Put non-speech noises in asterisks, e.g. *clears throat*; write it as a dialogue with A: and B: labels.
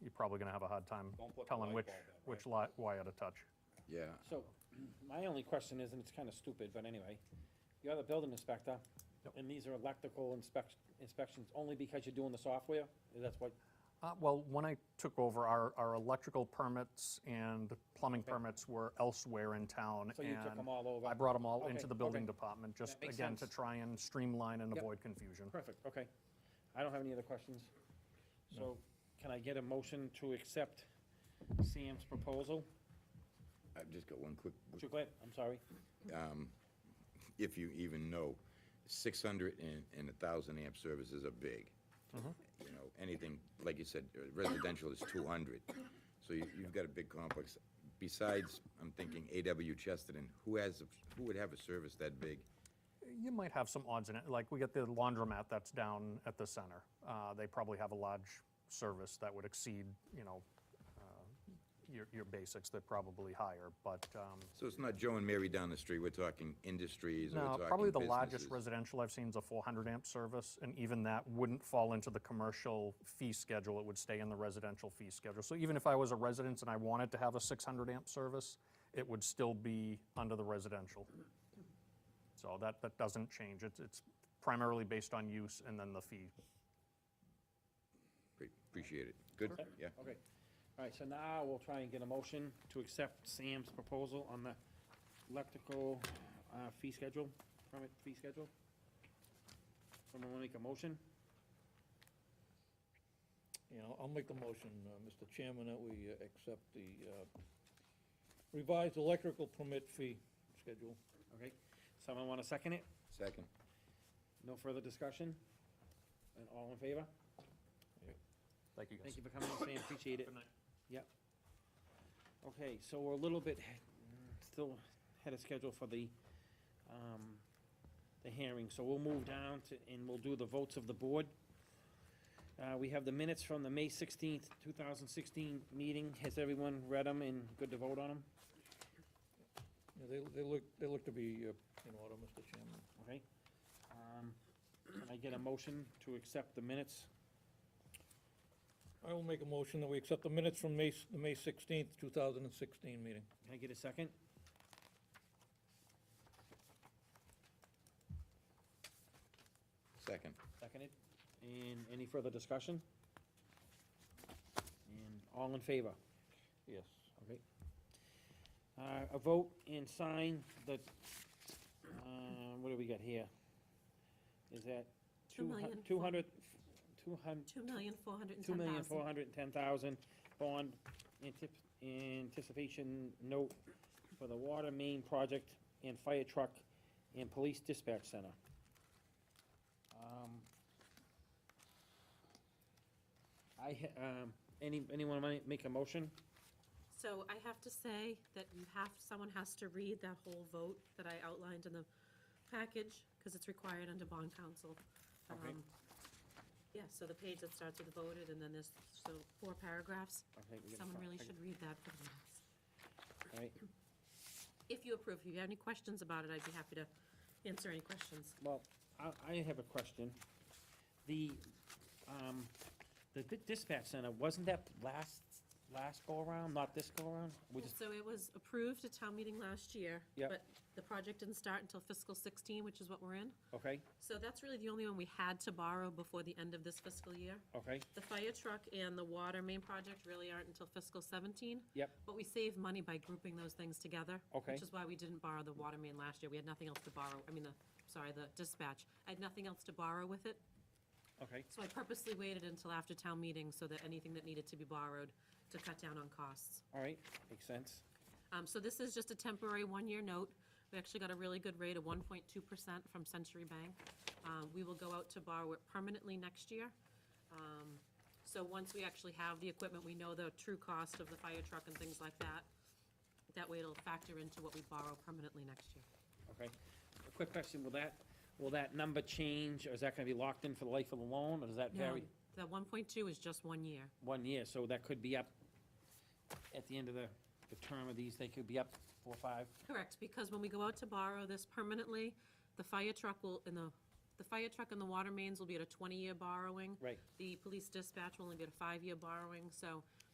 A: probably gonna have a hard time
B: Don't put the
A: telling
B: light
A: which,
B: bulb in, right?
A: which li- wire to touch.
C: Yeah,
D: So, *clears throat* my only question is, and it's kinda stupid, but anyway, you're the building inspector,
A: Yep.
D: and these are electrical inspect, inspections only because you're doing the software? That's what,
A: Uh, well, when I took over, our, our electrical permits and plumbing
D: Okay.
A: permits were elsewhere in town.
D: So you took
A: and
D: 'em all over?
A: I brought them all
D: Okay,
A: into the building
D: okay.
A: department, just
D: makes
A: again, to
D: sense.
A: try and streamline and
D: Yep.
A: avoid confusion.
D: perfect, okay. I don't have any other questions. So, can I get a motion to accept Sam's proposal?
C: I've just got one quick,
D: Sure, go ahead, I'm sorry.
C: if you even know, six hundred and, and a thousand amp services are big.
A: Mm-hmm.
C: You know, anything, like you said, uh, residential is two hundred, so you, you've got a big complex. Besides, I'm thinking A.W. Chesterton, who has, a- who would have a service that big?
A: You might have some odds in it, like we got the laundromat that's down at the center. Uh, They probably have a large service that would exceed, you know, uh, your, your basics, they're probably higher, but, um,
C: So it's not Joe and Mary down the street, we're talking industries, or we're
A: no,
C: talking
A: probably the largest
C: businesses.
A: residential I've seen is a 400 amp service, and even that wouldn't fall into the commercial fee schedule, it would stay in the residential fee schedule. So even if I was a resident and I wanted to have a 600 amp service, it would still be under the residential. So that, that doesn't change, it's, it's primarily based on use and then the fee.
C: Pre- Appreciate it, good, yeah.
D: Okay. All right, so now we'll try and get a motion to accept Sam's proposal on the electrical uh, fee schedule, permit fee schedule. Someone wanna make a motion?
E: Yeah, I'll- I'll make the motion, uh, Mr. Chairman, that we uh, accept the uh, revised electrical permit fee schedule.
D: Okay, someone wanna second it?
C: Second,
D: No further discussion? And all in favor?
A: Thank you
D: Thank you for coming, Sam, appreciate it. Yep. Okay, so we're a little bit, mm, still had a schedule for the, um, the hearing, so we'll move down to, and we'll do the votes of the board. Uh, we have the minutes from the May sixteenth, two thousand sixteen meeting. Has everyone read them and good to vote on them?
E: Yeah, They, they look, they look to be uh, in order, Mr. Chairman.
D: Okay? Um, can I get a motion to accept the minutes?
E: I will make a motion that we accept the minutes from May, s- the May sixteenth, two thousand and sixteen meeting.
D: Can I get a second?
C: second,
D: Seconded. And any further discussion? And all in favor?
E: Yes.
D: Okay. Uh, a vote and sign the, uh, what do we got here? Is that
F: Two million
D: two
F: four-
D: hundred, two hun-
F: Two million, four hundred and
D: two
F: ten
D: million, four
F: thousand.
D: hundred and ten thousand bond antip- anticipation note for the water main project and fire truck and police dispatch center. Um, I, ha- um, any, anyone wanna make a motion?
F: So I have to say that you have, someone has to read that whole vote that I outlined in the package, because it's required under bond council.
D: Okay.
F: Um, Yeah, so the page that starts with voted, and then there's, so four paragraphs.
D: I think we gotta
F: Someone
D: fi-
F: really
D: I-
F: should read that for the minutes.
D: all right.
F: If you approve, if you have any questions about it, I'd be happy to answer any questions.
D: Well, I, I have a question. The, um, the di- dispatch center, wasn't that last, last go-around, not this go-around? We just,
F: So it was approved at town meeting last year.
D: Yep.
F: But the project didn't start until fiscal sixteen, which is what we're in.
D: okay,
F: So that's really the only one we had to borrow before the end of this fiscal year.
D: okay,
F: The fire truck and the water main project really aren't until fiscal 17.
D: Yep.
F: But we save money by grouping those things together.
D: Okay.
F: Which is why we didn't borrow the water main last year. We had nothing else to borrow, I mean, the, sorry, the dispatch. I had nothing else to borrow with it,
D: okay,
F: so I purposely waited until after town meeting so that anything that needed to be borrowed to cut down on costs.
D: all right, makes sense.
F: Um, So this is just a temporary one-year note. We actually got a really good rate of 1.2% from Century Bank. Um, We will go out to borrow it permanently next year. Um, So once we actually have the equipment, we know the true cost of the fire truck and things like that. That way it'll factor into what we borrow permanently next year.
D: Okay. A quick question, will that, will that number change, or is that gonna be locked in for the life of the loan, or does that vary?
F: The 1.2 is just one year.
D: One year, so that could be up at the end of the, the term of these, they could be up four, five?
F: Correct, because when we go out to borrow this permanently, the fire truck will, and the, the fire truck and the water mains will be at a twenty-year borrowing.
D: Right.
F: The police dispatch will only be at a five-year borrowing, so